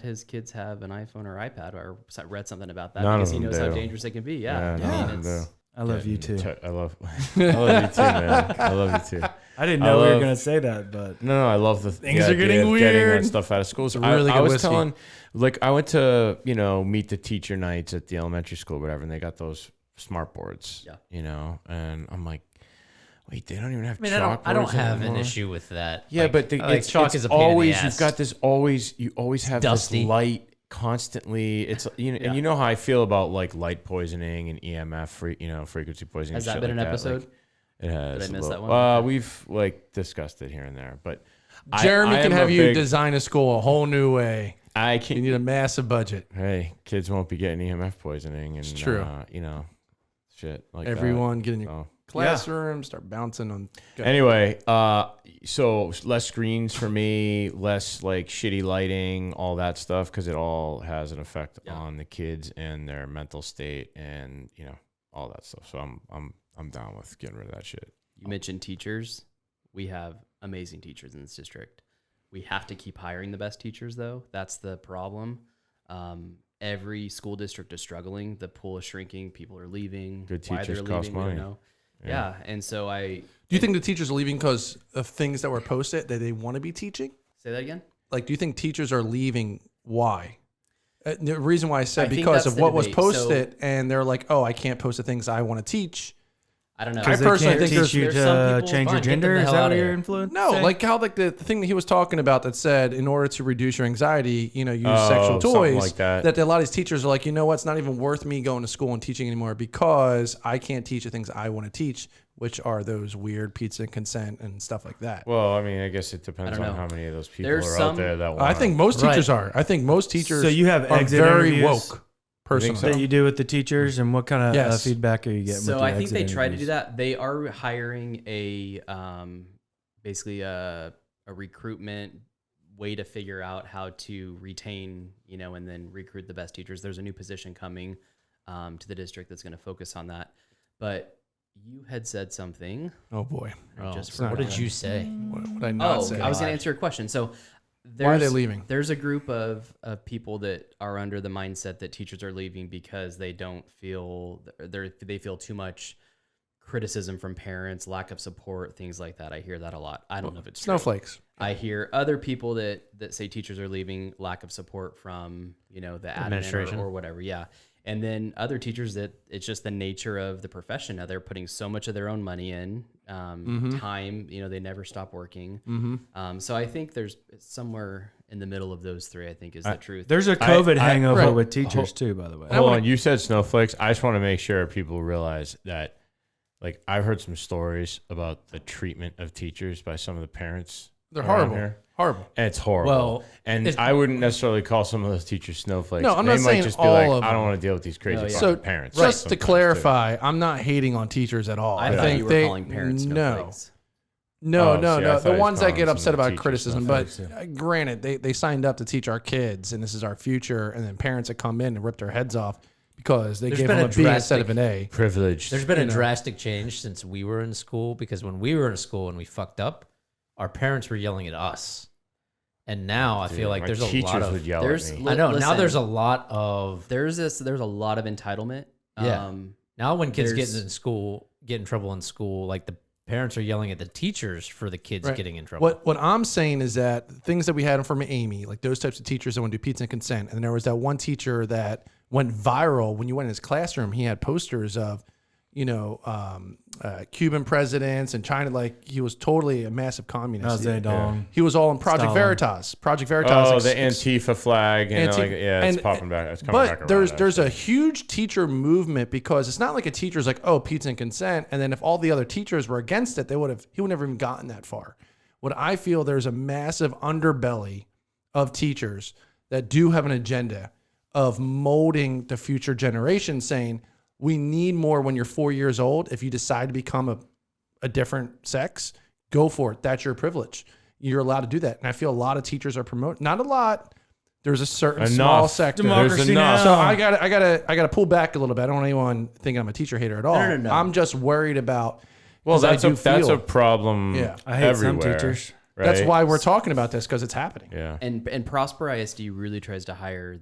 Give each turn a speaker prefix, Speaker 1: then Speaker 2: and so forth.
Speaker 1: his kids have an iPhone or iPad. Or I read something about that
Speaker 2: None
Speaker 1: because
Speaker 2: of
Speaker 1: he
Speaker 2: them
Speaker 1: knows how
Speaker 2: do.
Speaker 1: dangerous it can be.
Speaker 2: Yeah,
Speaker 1: Yeah, I
Speaker 2: none of
Speaker 1: mean,
Speaker 2: them
Speaker 1: it's-
Speaker 3: I love you too.
Speaker 2: Getting tou- I love, I love you too, man. I love you too.
Speaker 3: I didn't
Speaker 2: I
Speaker 3: know we were
Speaker 2: love-
Speaker 3: gonna say that, but
Speaker 2: No, no, I love the
Speaker 3: Things
Speaker 2: the
Speaker 3: are
Speaker 2: idea
Speaker 3: getting
Speaker 2: of Getting
Speaker 3: weird.
Speaker 2: that stuff out of school. So
Speaker 4: a really
Speaker 2: I, I
Speaker 4: good
Speaker 2: was
Speaker 4: whiskey.
Speaker 2: telling, like, I went to you know meet the teacher nights at the elementary school, whatever, and they got those smart boards.
Speaker 1: Yeah.
Speaker 2: You know, and I'm like, wait, they don't even have.
Speaker 4: I mean, I don't, I don't
Speaker 2: chalkboards
Speaker 4: have an
Speaker 2: anymore?
Speaker 4: issue with that.
Speaker 2: Yeah,
Speaker 4: Like-
Speaker 2: but the,
Speaker 4: like,
Speaker 2: it's,
Speaker 4: chalk
Speaker 2: it's
Speaker 4: is a pain
Speaker 2: always
Speaker 4: in the ass.
Speaker 2: you've got this always you always have
Speaker 4: dusty.
Speaker 2: this light constantly. It's you know,
Speaker 1: Yeah.
Speaker 2: and you know how I feel about like light poisoning and EMF, fre- you know, frequency poisoning.
Speaker 1: has
Speaker 2: and
Speaker 1: that
Speaker 2: shit
Speaker 1: been an
Speaker 2: like like,
Speaker 1: episode?
Speaker 2: it has.
Speaker 1: Did I
Speaker 2: a
Speaker 1: miss
Speaker 2: little-
Speaker 1: that one?
Speaker 2: Uh, we've like discussed it here and there, but I-
Speaker 4: Jeremy
Speaker 2: I
Speaker 4: can
Speaker 2: am a
Speaker 4: have you
Speaker 2: big-
Speaker 4: design a school a whole new way.
Speaker 2: I
Speaker 4: You
Speaker 2: can.
Speaker 4: need a massive budget.
Speaker 2: Hey, kids won't be getting EMF poisoning, and
Speaker 4: true.
Speaker 2: Uh, you know, shit like that. Oh.
Speaker 4: Everyone get in your
Speaker 2: So.
Speaker 4: classroom, start bouncing on.
Speaker 2: Anyway, uh, so less screens for me, less like shitty lighting, all that stuff, because it all has an effect
Speaker 1: Yeah.
Speaker 2: on the kids and their mental state, and you know all that stuff. So I'm I'm I'm down with getting rid of that shit.
Speaker 1: You mentioned teachers. We have amazing teachers in this district. We have to keep hiring the best teachers, though. That's the problem. Um, every school district is struggling. The pool is shrinking. People are leaving.
Speaker 2: Good
Speaker 1: Why they're
Speaker 2: teachers cost
Speaker 1: leaving, we don't
Speaker 2: money.
Speaker 1: know. Yeah. and so I
Speaker 4: Do you think the teachers are leaving because of things that were posted that they want to be teaching?
Speaker 1: say that again.
Speaker 4: Like, do you think teachers are leaving? Why? Uh, The reason why I said
Speaker 1: I think
Speaker 4: because
Speaker 1: that's
Speaker 4: of
Speaker 1: the
Speaker 4: what was
Speaker 1: debate. So-
Speaker 4: posted, and they're like, "Oh, I can't post the things I want to teach."
Speaker 1: I don't know.
Speaker 4: I
Speaker 3: they
Speaker 4: personally
Speaker 3: can't
Speaker 4: think there's-
Speaker 3: teach you
Speaker 1: there's some
Speaker 3: to
Speaker 1: people-
Speaker 3: change your
Speaker 1: fine, get them
Speaker 3: gender.
Speaker 4: the
Speaker 3: Is
Speaker 4: hell
Speaker 3: that
Speaker 4: outta
Speaker 3: what your
Speaker 4: here.
Speaker 3: influence?
Speaker 4: No,
Speaker 3: saying?
Speaker 4: like how like the, the thing that he was talking about that said in order to reduce your anxiety, you know, use sexual
Speaker 2: Oh, something
Speaker 4: toys.
Speaker 2: like that.
Speaker 4: a lot of these teachers are like, you know what, it's not even worth me going to school and teaching anymore because I can't teach the things I want to teach, which are those weird pizza and consent and stuff like that.
Speaker 2: Well, I mean, I guess it depends
Speaker 1: don't
Speaker 2: on
Speaker 1: know.
Speaker 2: how many of those people
Speaker 1: There's
Speaker 2: are
Speaker 1: some-
Speaker 2: out there that want.
Speaker 4: I think most
Speaker 3: Right.
Speaker 4: teachers are. I think most teachers
Speaker 3: So you have
Speaker 4: are
Speaker 3: exit
Speaker 4: very
Speaker 3: interviews?
Speaker 4: woke personally.
Speaker 3: that you do with the teachers, and what kind of uh,
Speaker 4: Yes.
Speaker 3: feedback are you getting? with
Speaker 1: So
Speaker 3: the
Speaker 1: I think
Speaker 3: exit
Speaker 1: they try to do
Speaker 3: interviews?
Speaker 1: that. They are hiring a um, basically a, a recruitment way to figure out how to retain, you know, and then recruit the best teachers. There's a new position coming um, to the district that's going to focus on that. But you had said something.
Speaker 4: oh boy.
Speaker 1: I just
Speaker 4: it's
Speaker 1: forgot.
Speaker 4: not good.
Speaker 1: what
Speaker 4: What
Speaker 1: did you
Speaker 4: say? What would I not
Speaker 1: oh,
Speaker 4: say?
Speaker 1: I was going to answer your question. So
Speaker 4: Why are they
Speaker 1: there's-
Speaker 4: leaving?
Speaker 1: There's a group of, of people that are under the mindset that teachers are leaving because they don't feel they they feel too much criticism from parents, lack of support, things like that. I hear that a lot. I don't know if it's true.
Speaker 4: Snowflakes.
Speaker 1: I hear other people that that say teachers are leaving lack of support from you know the administration
Speaker 4: Administration.
Speaker 1: or, whatever. Yeah, and then other teachers that it's just the nature of the profession. Now they're putting so much of their own money in um,
Speaker 4: Mm-hmm.
Speaker 1: time. You know they never stop working. Um, so I think there's somewhere in the middle of those three. I think is the truth.
Speaker 3: There's a COVID
Speaker 2: I-
Speaker 3: hangover
Speaker 4: right.
Speaker 3: with teachers too, by the way.
Speaker 2: Hold on, you said snowflakes. I just want to make sure people realize that, like, I've heard some stories about the treatment of teachers by some of the parents.
Speaker 4: They're
Speaker 2: around
Speaker 4: horrible.
Speaker 2: here.
Speaker 4: Horrible.
Speaker 2: And it's horrible.
Speaker 4: Well,
Speaker 2: and I wouldn't necessarily call some of those teachers snowflakes.
Speaker 4: No, I'm
Speaker 2: they
Speaker 4: not
Speaker 2: might
Speaker 4: saying
Speaker 2: just
Speaker 4: all
Speaker 2: be like,
Speaker 4: of
Speaker 2: I
Speaker 4: them.
Speaker 2: don't want to deal with these crazy
Speaker 1: No, yeah.
Speaker 2: fucking
Speaker 4: So
Speaker 2: parents.
Speaker 4: just
Speaker 2: sometimes,
Speaker 4: to
Speaker 2: too.
Speaker 4: clarify, I'm not hating on teachers at all.
Speaker 1: I,
Speaker 4: I,
Speaker 1: thought
Speaker 4: think
Speaker 1: you were
Speaker 4: they
Speaker 1: calling parents
Speaker 4: no,
Speaker 1: snowflakes.
Speaker 4: no,
Speaker 2: Oh,
Speaker 4: no,
Speaker 2: see, I
Speaker 4: no.
Speaker 2: thought
Speaker 4: The
Speaker 2: he was
Speaker 4: ones that
Speaker 2: calling
Speaker 4: get
Speaker 2: some of
Speaker 4: upset
Speaker 2: the
Speaker 4: about
Speaker 2: teachers
Speaker 4: criticism, but
Speaker 2: snowflakes,
Speaker 4: uh, granted, they they signed up to teach our kids, and this is our future. And then parents that come in and rip their heeds off because they
Speaker 5: There's
Speaker 4: gave
Speaker 5: been
Speaker 4: them
Speaker 5: a
Speaker 4: a B instead
Speaker 5: drastic-
Speaker 4: of an A.
Speaker 2: privileged.
Speaker 5: There's been a drastic change since we were in school because when we were in school and we fucked up, our parents were yelling at us. And now I feel like
Speaker 2: My
Speaker 5: there's a
Speaker 2: teachers
Speaker 5: lot of
Speaker 2: would yell
Speaker 1: There's-
Speaker 2: at me.
Speaker 1: li-
Speaker 5: I know now
Speaker 1: listen.
Speaker 5: there's a lot of
Speaker 1: There's this. There's a lot of entitlement.
Speaker 5: Yeah.
Speaker 1: Um,
Speaker 5: now when kids get
Speaker 1: there's-
Speaker 5: in school, get in trouble in school, like the parents are yelling at the teachers for the kids
Speaker 4: Right.
Speaker 5: getting in trouble.
Speaker 4: What what I'm saying is that things that we had from Amy, like those types of teachers that would do pizza and consent, and there was that one teacher that went viral when you went in his classroom. He had posters of, you know, um, uh, Cuban presidents and China. Like he was totally a massive
Speaker 3: Mao
Speaker 4: communist.
Speaker 3: Zedong.
Speaker 4: He was all in Project
Speaker 3: Stalin.
Speaker 4: Veritas. Project Veritas.
Speaker 2: oh,
Speaker 4: ex-
Speaker 2: the
Speaker 4: ex-
Speaker 2: Antifa flag. And
Speaker 4: Antifa-
Speaker 2: like, yeah, it's
Speaker 4: and-
Speaker 2: popping back. It's coming
Speaker 4: but
Speaker 2: back around.
Speaker 4: there's there's a huge teacher movement because it's not like a teacher's like oh pizza and consent and then if all the other teachers were against it they would have he would never even gotten that far what i feel there's a massive underbelly of teachers that do have an agenda of molding the future generation saying we need more when you're four years old if you decide to become a a different sex, go for it. That's your privilege. You're allowed to do that. And I feel a lot of teachers are promoting, not a lot. There's a certain small
Speaker 2: Enough.
Speaker 4: sector.
Speaker 2: Democracy There's enough. now.
Speaker 4: So I got to I got to I got to pull back a little bit. I don't want anyone thinking I'm a teacher hater at all.
Speaker 1: no, no.
Speaker 4: I'm just worried about
Speaker 2: well,
Speaker 4: 'cause
Speaker 2: that's
Speaker 4: I
Speaker 2: a
Speaker 4: do
Speaker 2: that's
Speaker 4: feel-
Speaker 2: a problem.
Speaker 4: Yeah.
Speaker 3: I hate
Speaker 2: everywhere.
Speaker 3: some teachers.
Speaker 2: Right?
Speaker 4: That's why we're talking about this because it's happening.
Speaker 2: Yeah.
Speaker 1: And and Prosper ISD really tries to hire